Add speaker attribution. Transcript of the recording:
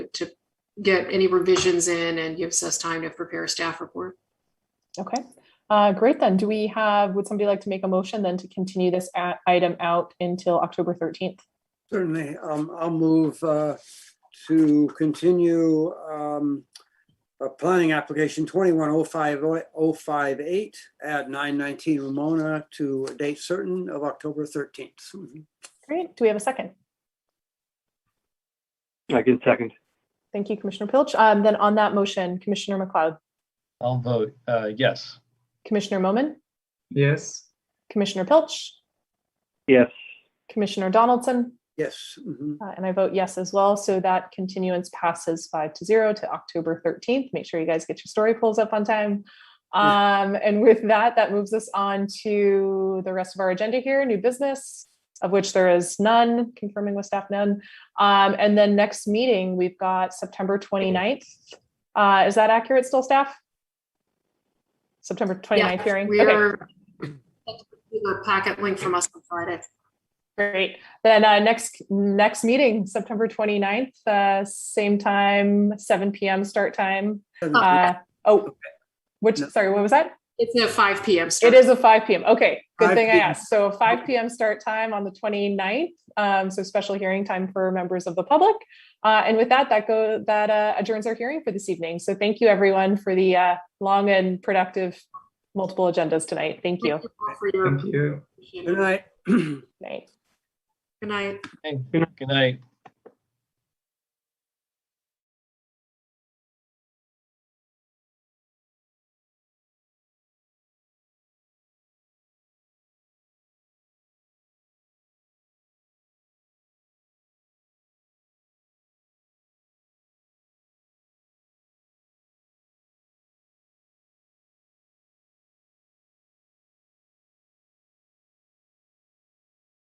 Speaker 1: get any revisions in and gives us time to prepare a staff report.
Speaker 2: Okay, uh, great then. Do we have, would somebody like to make a motion then to continue this a- item out until October thirteenth?
Speaker 3: Certainly, um, I'll move, uh, to continue, um, a planning application twenty-one oh five, oh five eight at nine nineteen Ramona to a date certain of October thirteenth. Mm-hmm.
Speaker 2: Great. Do we have a second?
Speaker 4: I can second.
Speaker 2: Thank you, Commissioner Pilch. Um, then on that motion, Commissioner McLeod,
Speaker 5: I'll vote uh, yes.
Speaker 2: Commissioner Moman,
Speaker 6: yes,
Speaker 2: Commissioner Pilch,
Speaker 4: Yes,
Speaker 2: Commissioner Donaldson,
Speaker 3: Yes, mhm.
Speaker 1: Mm-hmm.
Speaker 2: uh, and I vote yes as well. So that continuance passes five to zero to October thirteenth. Make sure you guys get your story polls up on time. Um, and with that, that moves us on to the rest of our agenda here, new business, of which there is none, confirming with staff none. Um, and then next meeting, we've got September 29th. Uh, is that accurate still, staff? September 29th hearing?
Speaker 1: We
Speaker 2: Okay.
Speaker 1: are, the packet link from us on Friday.
Speaker 2: Great. Then uh, next next meeting, September 29th, uh, same time, 7 p.m. start time. Uh, oh, which,
Speaker 3: No.
Speaker 2: sorry, what was that?
Speaker 1: It's a five PM start.
Speaker 2: It is a 5 p.m. Okay, good
Speaker 3: 5
Speaker 2: thing I
Speaker 3: p.m.
Speaker 2: asked. So 5 p.m. start time on the 29th. Um, so special hearing time for members of the public. Uh, and with that, that go that uh, adjourns our hearing for this evening. So thank you everyone for the uh, long and productive multiple agendas tonight. Thank you.
Speaker 1: Thank you all for your
Speaker 6: thank you.
Speaker 3: Good
Speaker 1: appreciation.
Speaker 3: night.
Speaker 2: Night.
Speaker 1: Good night.
Speaker 5: Good night.